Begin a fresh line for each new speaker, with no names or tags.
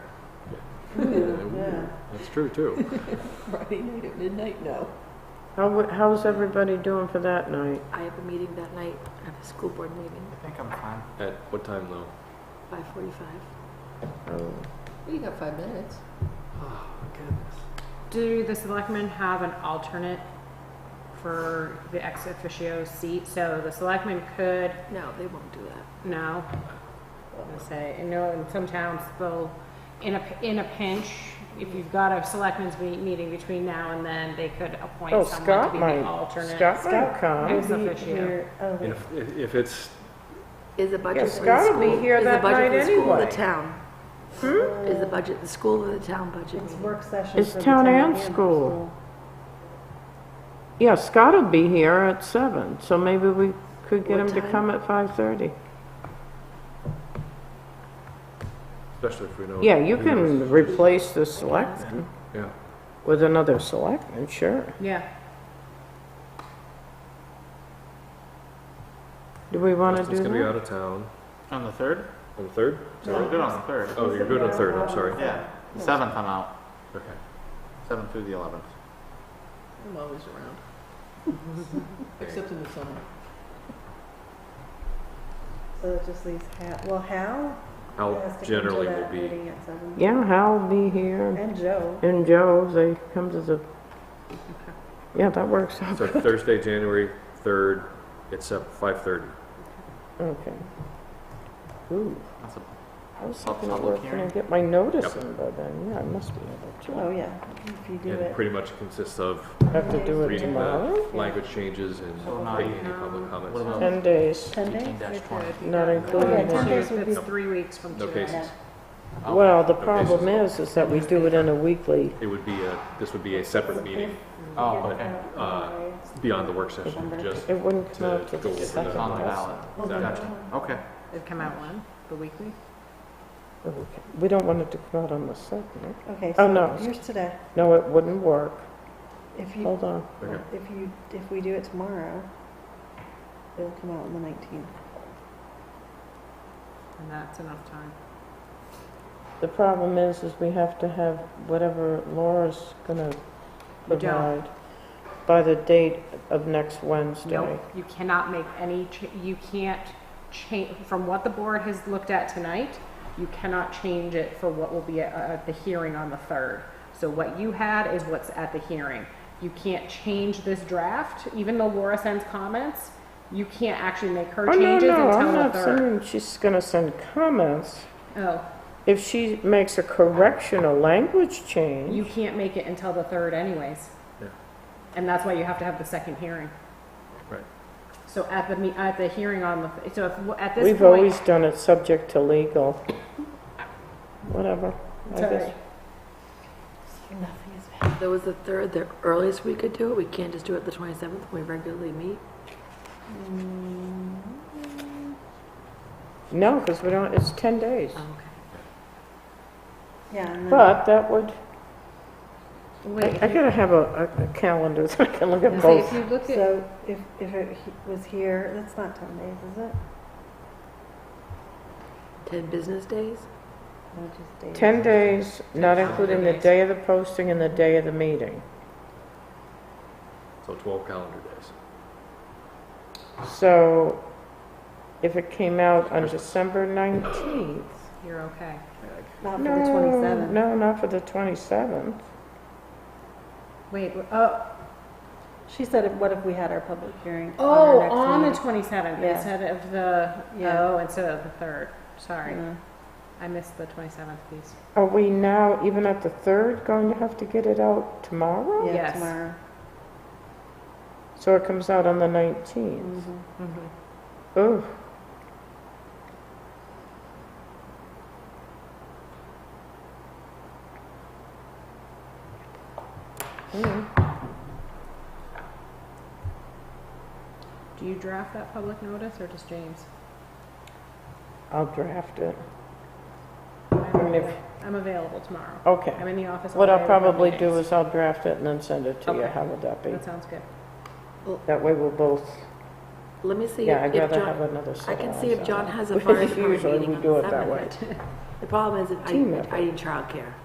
Yeah,
That's true too.
Friday night at midnight, no.
How, w- how's everybody doing for that night?
I have a meeting that night, I have a school board meeting,
I think I'm fine.
At what time though?
five forty-five.
Oh,
Well, you got five minutes.
Do the selectmen have an alternate for the ex officio seat? So the selectmen could,
No, they won't do that.
no, I'm gonna say, I know in some towns they'll, in a, in a pinch, if you've got a selectmen's me- meeting between now and then, they could
Oh,
appoint someone to
Scott
be
might,
the alternate.
Scott might
Ex
come.
officio.
Oh,
And if, if- if it's,
Is the budget
Yeah,
for the
Scott
school?
will be here
is the
that
budget
night
for the school or
anyway.
The town?
Hmm?
Is the budget the school or the town budget meeting?
It's town and school. Yeah, Scott will be here at seven, so maybe we could get
What
him to
time?
come at five thirty.
especially if we know.
Yeah, you
who
can
knows.
replace the selectman
Yeah,
with another selectman, sure.
Yeah,
Do we want to
Justin's
do
gonna be
that?
out of town
On the third?
on the third.
So we're good on the third.
Oh, you're good on the third. I'm sorry.
Yeah. Seventh, I'm out.
Okay.
Seventh through the eleventh.
I'm always around. Except in the summer.
So it just leaves Hal, well, Hal
Al
has to come
generally
to
will
that
be.
meeting at seven.
Yeah, Hal will be here,
And Joe.
and Joe, if they come to the, yeah, that works out,
So Thursday, January third, it's at five thirty.
okay. Ooh,
That's a
I was hoping to
Public
work, can I
hearing.
get my notice
Yep.
in by then? Yeah, I must be
Oh,
able to.
yeah, if you do
It
it.
pretty much consists of
Have to do it
reading the
tomorrow?
language changes and
So not
making
even-
any public comments.
What about
Ten days,
Ten days?
eighteen twenty?
not
Yeah,
including
ten
that.
days would be,
it's three weeks from
No
today.
cases.
Oh,
Well, the
Okay, so-
problem is, is that we do it on a weekly,
It would be a, this would be a separate meeting
Oh,
but,
okay.
uh, beyond the work session, just
it wouldn't come out
To
to
go
the
over
It's
second.
on the
does it?
ballot.
that.
Okay.
It'd come out when, the weekly?
Oh, Okay. We don't want it to come out on the second, right?
okay,
Oh,
so
no.
here's today.
No, it wouldn't work,
If you,
hold on.
Okay.
if you, if we do it tomorrow, it'll come out on the nineteenth.
And that's enough time.
The problem is, is we have to have whatever Laura's gonna
You don't.
provide by the date of next Wednesday.
Nope, you cannot make any, cha- you can't change, from what the board has looked at tonight, you cannot change it for what will be at, at the hearing on the 3rd. So what you had is what's at the hearing. You can't change this draft, even though Laura sends comments, you can't actually make her
Oh, no,
changes
no,
until
I'm
the
not
3rd.
saying she's gonna send comments.
Oh,
If she makes a correctional language
you
change,
can't make it until the 3rd anyways.
Yeah.
And that's why you have to have the second hearing.
Right.
So at the, me- at the hearing on the, so if, at this point.
we've always done it subject to legal. Whatever, I guess.
Sorry.
Nothing is bad.
There was a third, the earliest we could do it, we can't just do it the twenty-seventh, we regularly meet.
Mm-hmm.
No, because we don't, it's 10 days.
Uh-huh.
Oh, Okay.
Yeah, and then,
But that would, I
Wait,
I gotta have a, a- a calendar so I can look at
see,
both.
if you look at,
so if, if it he- was here, that's not ten days, is it?
Ten business days?
No, just days.
10 days, not including the day of the posting and the day of the meeting.
So twelve calendar days.
So if it came out on December 19th.
you're okay.
Not for the
No,
twenty-seventh.
no, not for the 27th.
Wait, oh,
She said, if- what if we had our public hearing
oh,
on our
on the
next meeting?
twenty-seventh
Yeah.
instead of the,
Yeah. Mm-hmm.
oh, instead of the third. Sorry,
Yeah.
I missed the twenty-seventh piece.
Are we now, even at the 3rd, going to have to get it out tomorrow?
Yeah,
Yes.
tomorrow.
So it comes out on the 19th.
Mhm.
Mm-hmm.
Ooh,
Do you draft that public notice or just James?
I'll draft it.
I'm
mean, if-
available- I'm available tomorrow.
Okay.
I'm in the office. all
What I'll
day with no
probably do
meetings.
is I'll draft it and then send it to you.
Okay.
How would that be?
That sounds good.
That way we'll both,
Let me see
yeah,
if
I'd
if
rather have
John,
another
I
set
can
hours
see if
on
John
it.
has a fire department
Usually we
meeting on
do
the
it that way.
seventh. The problem is, that I,
Team effort.
I need childcare.